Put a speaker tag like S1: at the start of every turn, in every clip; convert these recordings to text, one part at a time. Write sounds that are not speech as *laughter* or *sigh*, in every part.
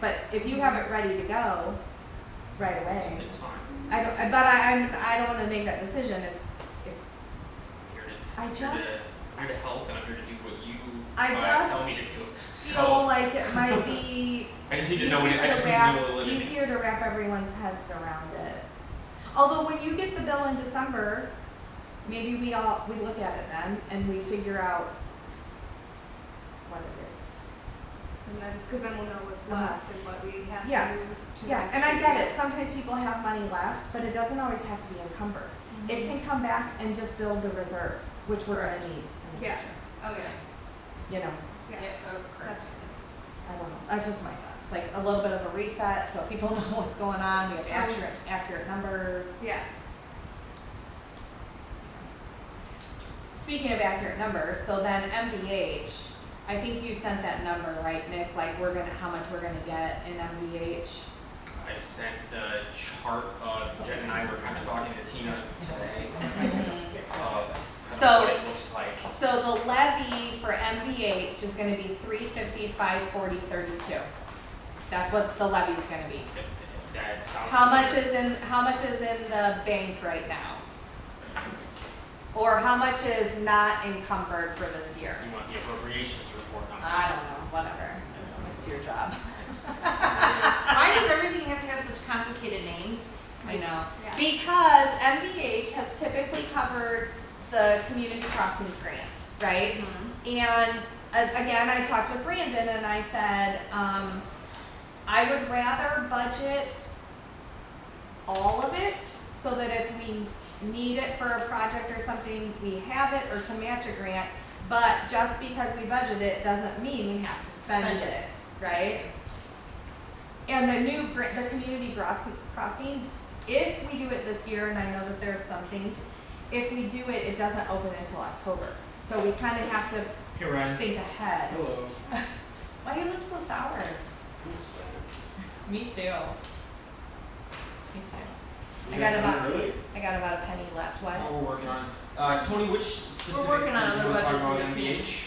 S1: but if you have it ready to go right
S2: It's,
S1: away,
S2: it's fine.
S1: I don't, I- but I, I'm, I don't wanna make that decision if, if,
S2: I'm here to,
S1: I
S2: I'm here
S1: just,
S2: to, I'm here to help, and I'm here to do what you
S1: I
S2: uh, tell me to do.
S1: just feel
S2: So
S1: like it might be
S2: I just *laughs* need
S1: easier
S2: to know. What it, I just
S1: to
S2: need to know
S1: wrap,
S2: what it
S1: easier
S2: is.
S1: to wrap everyone's heads around it. Although when you get the bill in December, maybe we all, we look at it then and we figure out what it is.
S3: And then, because then we'll know what's
S1: Uh-huh.
S3: left and what we have
S1: Yeah.
S3: to move to.
S1: Yeah, and I get it. Sometimes people have money left, but it doesn't always have to be encumbered. It
S3: Mm-hmm.
S1: can come back and just build the reserves, which we're gonna need in the
S3: Yeah.
S1: future.
S3: Oh, yeah.
S1: You know,
S3: Yeah. Gotcha.
S1: I don't know. That's just my thoughts. Like a little bit of a reset so people *laughs* know what's going on. We have
S3: So-
S1: accurate, accurate numbers.
S3: Yeah.
S1: Speaking of accurate numbers, so then MVH, I think you sent that number, right, Nick? Like we're gonna, how much we're gonna get in MVH?
S2: I sent the chart of Jen and I were kind of talking to Tina today of kind of
S1: So-
S2: what it looks like.
S1: So the levy for MVH is gonna be three fifty-five, forty, thirty-two. That's what the levy's gonna be.
S2: If- if That sounds.
S1: How much
S2: familiar.
S1: is in, how much is in the bank right now? Or how much is not encumbered for this year?
S2: You want the appropriations report number?
S1: I don't know, whatever. It's your job.
S2: It's-
S1: *laughs*
S4: Why does everything have to have such complicated names?
S1: I know.
S3: Yeah.
S1: Because MVH has typically covered the community crossings grant, right? And a- again, I talked with Brandon and I said, um, I would rather budget all of it so that if we need it for a project or something, we have it or to match a grant. But just because we budget it doesn't mean we have to spend
S4: Spend
S1: it, right? And the new, gra- the community grossi- crossing, if we do it this year, and I know that there's some things, if we do it, it doesn't open until October. So we kind of have to
S2: Hey Ryan.
S1: think ahead.
S2: Hello.
S1: Why do you look so sour?
S2: Who's that?
S1: Me too. Me too. I got
S2: You guys
S1: about-
S2: done early?
S1: I got about a penny left. What?
S2: Oh, we're working on. Uh, Tony, which specific
S4: We're working on
S2: things
S4: other
S2: you want to talk about
S4: budgets
S2: in
S4: for next
S2: MBH?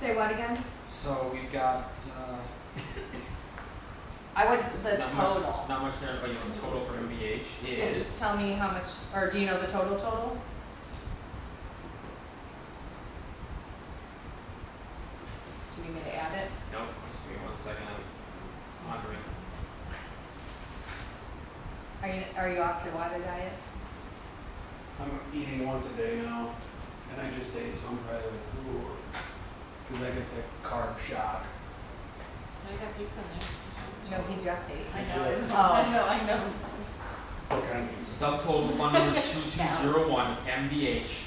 S1: Say what again?
S2: So we've got uh,
S1: I would the
S2: not
S1: total.
S2: Much, not much there, but you know, the total for MBH is
S1: Tell me how much, or do you know the total total? Do you need me to add it?
S2: nope. Just give me one second. I'm wondering.
S1: Are you are you off your water diet?
S5: I'm eating once a day now, and I just ate, so I'm probably like, ooh, because I get the carb shock.
S4: I got pizza in
S1: No, he just ate.
S5: I know. Yes.
S1: Oh.
S4: know, *laughs* I know.
S5: Okay.
S2: Subtotal
S1: *laughs*
S2: fund number two two zero one MBH,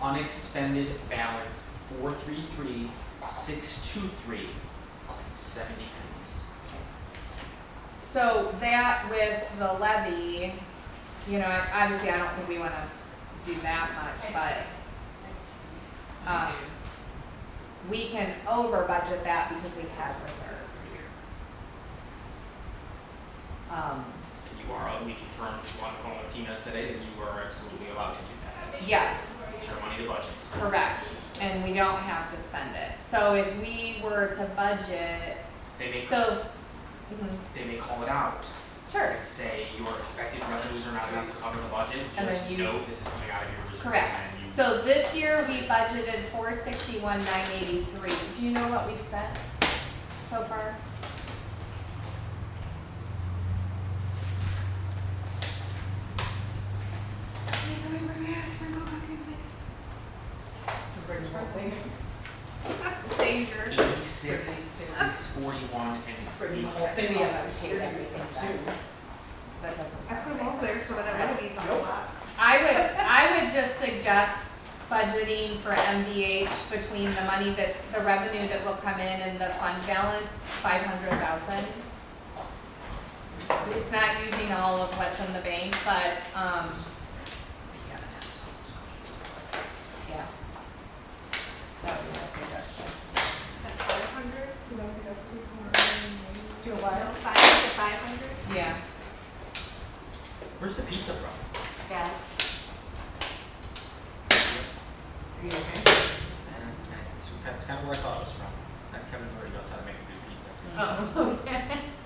S2: unexpended balance four three three six two three seventy pennies.
S1: So that with the levy, you know, I- obviously I don't think we wanna do that much, but um we can over budget that because we have reserves. Um
S2: You are. uh, We confirmed on the phone with Tina today that you are absolutely allowed to do that. It's-
S1: yes,
S2: It's your money to budget.
S1: correct, and we don't have to spend it. So if we were to budget,
S2: They may
S1: so, mhm,
S2: they may call it out.
S1: sure,
S2: and say your expected revenues are not enough to cover the budget,
S1: And then
S2: just
S1: you-
S2: know this is coming out of your reserves and
S1: Correct.
S2: then you.
S1: So this year, we budgeted four sixty-one, nine eighty-three. Do you know what we've spent so far?
S3: *laughs* Danger.
S2: Eighty-six, six forty-one, and eight cents.
S1: That doesn't
S3: I put
S1: sound
S3: them
S1: right.
S3: all there so that I wouldn't eat the whole box.
S1: I would, I would just suggest budgeting for MVH between the money that's, the revenue that will come in and the fund balance, five hundred thousand. It's not using all of what's in the bank, but, um, Yeah. that would be my suggestion.
S3: At five hundred, you know, because it's
S1: Do
S3: more.
S1: what?
S3: Five to five hundred.
S1: Yeah.
S2: Where's the pizza from?
S4: Yes. Are you okay?
S3: Mm-hmm.
S2: And that's, that's kind of where I thought it was from. That Kevin Murray knows how to make a good pizza.
S4: Oh, okay.